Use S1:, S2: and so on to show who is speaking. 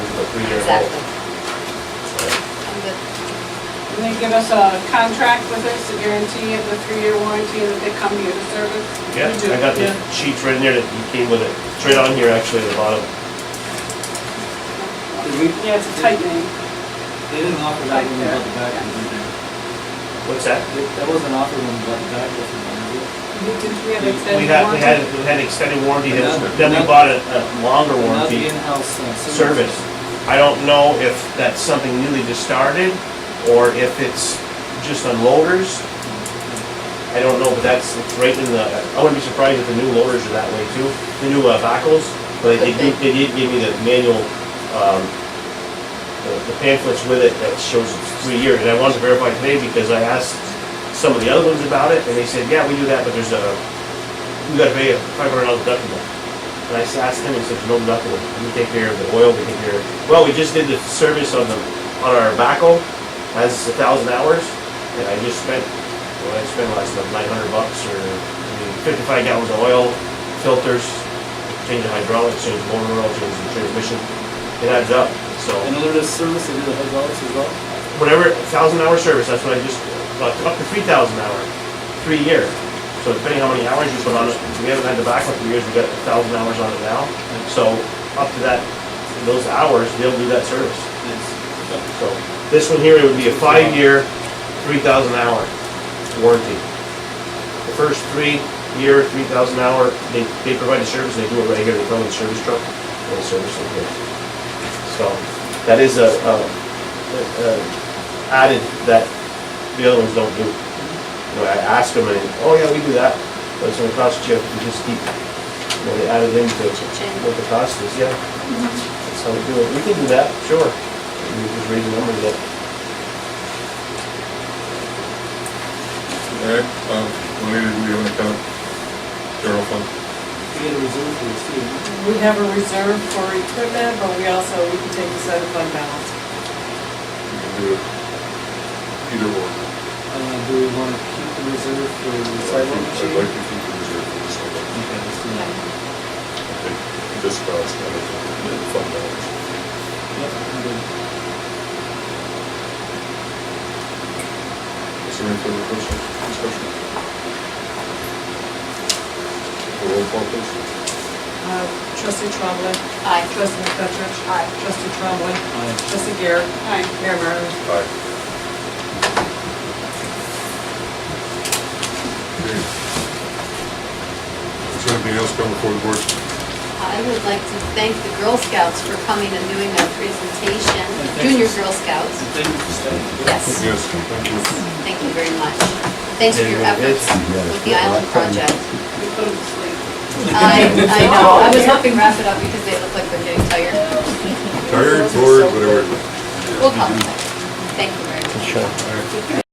S1: three years old.
S2: Exactly. I'm good.
S3: And they give us a contract with us, a guarantee of the three-year warranty that they come here to service?
S1: Yeah,
S3: We do,
S1: I got the
S3: yeah.
S1: sheets right in there that you came with it. It's right on here, actually, at the bottom.
S4: Did we,
S3: Yeah, it's a tight name.
S4: they didn't offer that one about the back, did they?
S1: What's that?
S4: That- That wasn't offered one about the back, wasn't
S3: We have
S1: We
S3: extended
S1: had, we had,
S3: warranty.
S1: we had extended warranty, that was-
S4: Another-
S1: then we
S4: another-
S1: bought a a longer
S4: there? Not the
S1: warranty
S4: in-house uh,
S1: service. I don't know if that's something newly just started, or if it's just on loaders. I don't know, but that's it's right in the, I wouldn't be surprised if the new loaders are that way too, the new uh, backhoes. But they did, they did give me the manual, um, the- the pamphlets with it that shows it's three years. And I wanted to verify today because I asked some of the other ones about it, and they said, yeah, we do that, but there's a, you gotta pay a five hundred dollar deductible. And I s- asked him, he said, no deductible, we take care of the oil, we take care of, well, we just did the service on the, on our backhoe, that's a thousand hours, and I just spent, well, I spent last month nine hundred bucks, or I mean, fifty-five gallons of oil, filters, change the hydraulics, change the motor oil, change the transmission, it adds up, so
S4: And under this service, they do the hydraulics as well?
S1: whatever, thousand hour service, that's what I just, like, up to three thousand hour, three year. So depending how many hours you put on it, we haven't had the backlog for years, we got a thousand hours on it now. So up to that, those hours, they'll do that service.
S4: Yes.
S1: So this one here, it would be a five-year, three thousand hour warranty. The first three year, three thousand hour, they, they provide the service, they do it right here, they come in the service truck, and they service it here. So that is a, a, a- a added that the other ones don't do. You know, I asked them, and, oh yeah, we do that, but it's gonna cost you, you just keep, you know, they added into
S2: Change.
S1: what the cost is, yeah. That's how we do it, we can do that, sure. We just raise the numbers up.
S5: Alright, um, Lenny, did we have any kind of general fund?
S4: We had a reserve for this too.
S6: We have a reserve for equipment, but we also, we can take this out of fund balance.
S5: You can do it either or.
S4: Uh, do we want to keep the reserve for the
S5: I'd
S4: sidewalk
S5: like to- I'd
S4: machine?
S5: like to keep the reserve for this one.
S4: Okay, let's do that.
S5: I think This cost, I don't know, the fund balance.
S4: Yep, I'm good.
S5: Is there any further questions, discussion? Roll call please.
S6: Uh, Trustee Trombley.
S2: Aye.
S6: Trustee McFetrich.
S2: Aye.
S6: Trustee Trombley.
S4: Aye.
S6: Trustee Garrett.
S3: Aye.
S6: Mayor Martin.
S5: Aye. Okay. Is there anything else coming before the board?
S2: I would like to thank the Girl Scouts for coming and doing their presentation,
S4: thank
S2: Junior
S4: you.
S2: Girl Scouts.
S4: Thank you for staying.
S2: Yes,
S5: Yes, thank you.
S2: thank you very much. Thanks for your
S1: Anyone
S2: efforts
S1: else?
S2: with the island project.
S3: We put them to sleep.
S2: I, I know, I was hoping wrap it up because they look like they're getting tired.
S5: Tired, bored, whatever.
S2: We'll call it. Thank you very much.